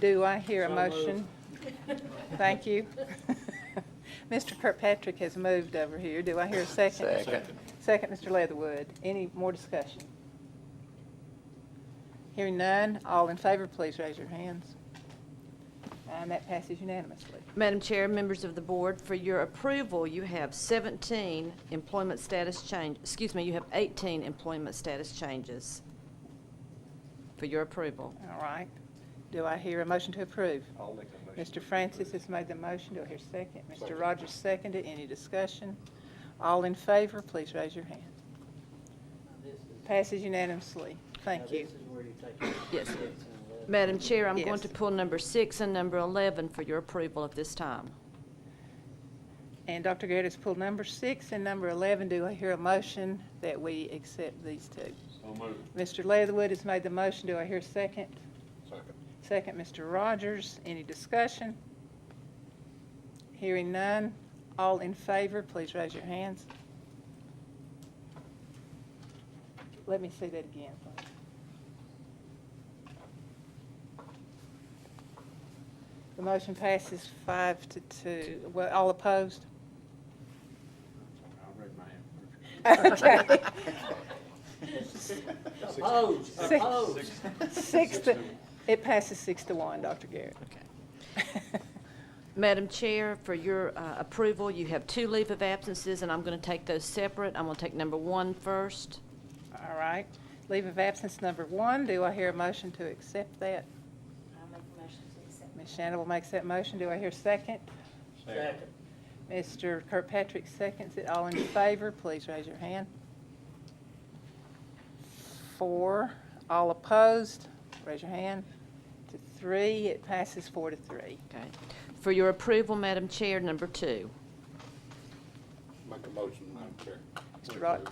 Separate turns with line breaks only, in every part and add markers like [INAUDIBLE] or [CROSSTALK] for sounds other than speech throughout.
Do I hear a motion? Thank
[LAUGHS]
you. [LAUGHS] Mr. Kirkpatrick has moved over here. Do I hear a second?
Second.
Second, Mr. Leatherwood. Any more discussion? Hearing none, all in favor, please raise your hands. And that passes unanimously.
Madam Chair, members of the board, for your approval, you have 17 employment status change, excuse me, you have 18 employment status changes for your approval.
All right. Do I hear a motion to approve?
I'll make a motion.
Mr. Francis has made the motion. Do I hear a second? Mr. Rogers seconded. Any discussion? All in favor, please raise your hand. Passes unanimously. Thank you.
Now, this is where you take your
Yes.
six and eleven.
Madam Chair, I'm
Yes.
going to pull number six and number 11 for your approval at this time.
And Dr. Garrett has pulled number six and number 11. Do I hear a motion that we accept these two?
So moved.
Mr. Leatherwood has made the motion. Do I hear a second?
Second.
Second, Mr. Rogers. Any discussion? Hearing none. All in favor, please raise your hands. Let me see that again, please. The motion passes five to two. Well, all opposed?
I read my hand.
Okay.
[LAUGHS] Opposed,
Six.
opposed.
Six to, it passes six to one, Dr. Garrett. [LAUGHS]
Madam Chair, for your uh, approval, you have two leave of absences, and I'm going to take those separate. I'm going to take number one first.
All right. Leave of absence number one. Do I hear a motion to accept that?
I'll make a motion to accept.
Ms. Shannable makes that motion. Do I hear a second?
Second.
Mr. Kirkpatrick seconds it. All in favor, please raise your hand. Four. All opposed, raise your hand. To three, it passes four to three.
Okay. For your approval, Madam Chair, number two.
Make a motion, Madam Chair.
Mr. Rod,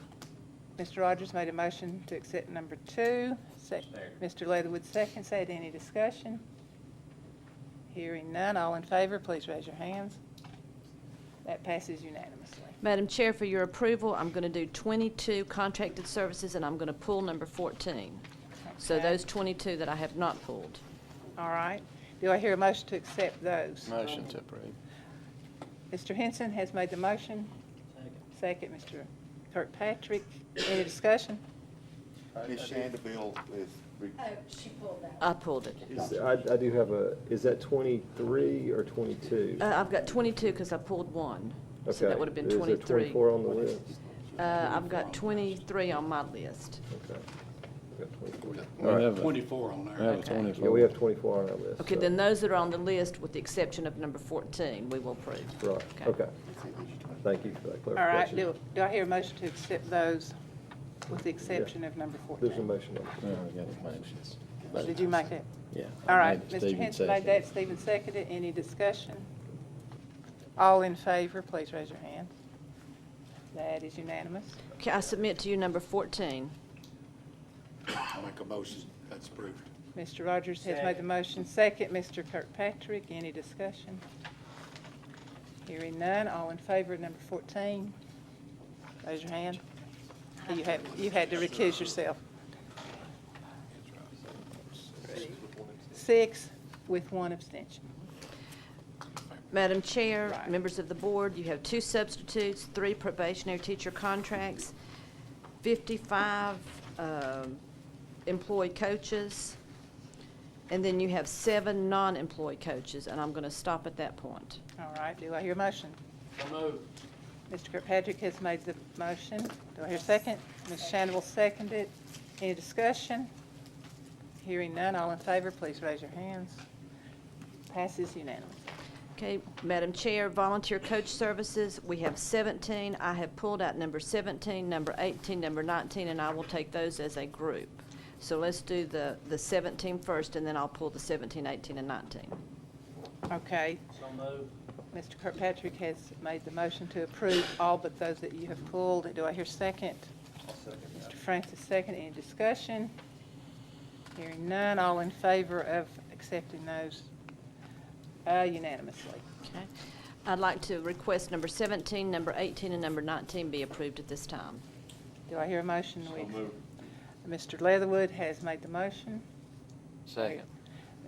Mr. Rogers made a motion to accept number two. Sec-
Second.
Mr. Leatherwood seconds that. Any discussion? Hearing none. All in favor, please raise your hands. That passes unanimously.
Madam Chair, for your approval, I'm going to do 22 contracted services, and I'm going to pull number 14. So
Okay.
those 22 that I have not pulled.
All right. Do I hear a motion to accept those?
Motion to approve.
Mr. Henson has made the motion.
Second.
Second, Mr. Kirkpatrick. Any discussion?
Ms. Shandabille is, re-
Oh, she pulled that.
I pulled it.
Is- I, I do have a, is that twenty-three or twenty-two?
Uh, I've got 22 because I pulled one. So
Okay.
that would have been
Is there
23.
twenty-four on the list?
Uh, I've got 23 on my list.
Okay. We've got 24.
We have a-
Twenty-four on there.
I have
Okay.
a
Yeah, we
twenty-four.
have twenty-four on our list.
Okay,
so-
then those that are on the list, with the exception of number 14, we will approve.
Right, okay. Thank you for that
All right.
clarification.
Do do I hear a motion to accept those with the exception of number 14?
There's a motion on
Yeah, I got it, motions.
Did you make that?
Yeah.
All
I
right,
made it,
Mr.
Stephen
Henson made
seconded.
that, Stephen seconded, any discussion? All in favor, please raise your hand. That is unanimous.
Okay, I submit to you number 14.
I make a motion, that's approved.
Mr. Rogers has made the motion, second, Mr. Kirkpatrick, any discussion? Hearing none, all in favor of number fourteen, raise your hand. You had, you had to recuse yourself. Six with one abstention.
Madam Chair,
Right.
members of the board, you have two substitutes, three probationary teacher contracts, 55 um, employed coaches, and then you have seven non-employed coaches, and I'm going to stop at that point.
All right, do I hear a motion?
So moved.
Mr. Kirkpatrick has made the motion. Do I hear a second? Ms. Shannable seconded. Any discussion? Hearing none, all in favor, please raise your hands. Passes unanimously.
Okay, Madam Chair, volunteer coach services, we have 17. I have pulled out number 17, number 18, number 19, and I will take those as a group. So let's do the the 17 first, and then I'll pull the 17, 18, and 19.
Okay,
So moved.
Mr. Kirkpatrick has made the motion to approve all but those that you have pulled. Do I hear a second?
I'll second that.
Mr. Francis second. Any discussion? Hearing none, all in favor of accepting those uh, unanimously.
Okay. I'd like to request number 17, number 18, and number 19 be approved at this time.
Do I hear a motion?
So
We-
moved.
Mr. Leatherwood has made the motion.
Second.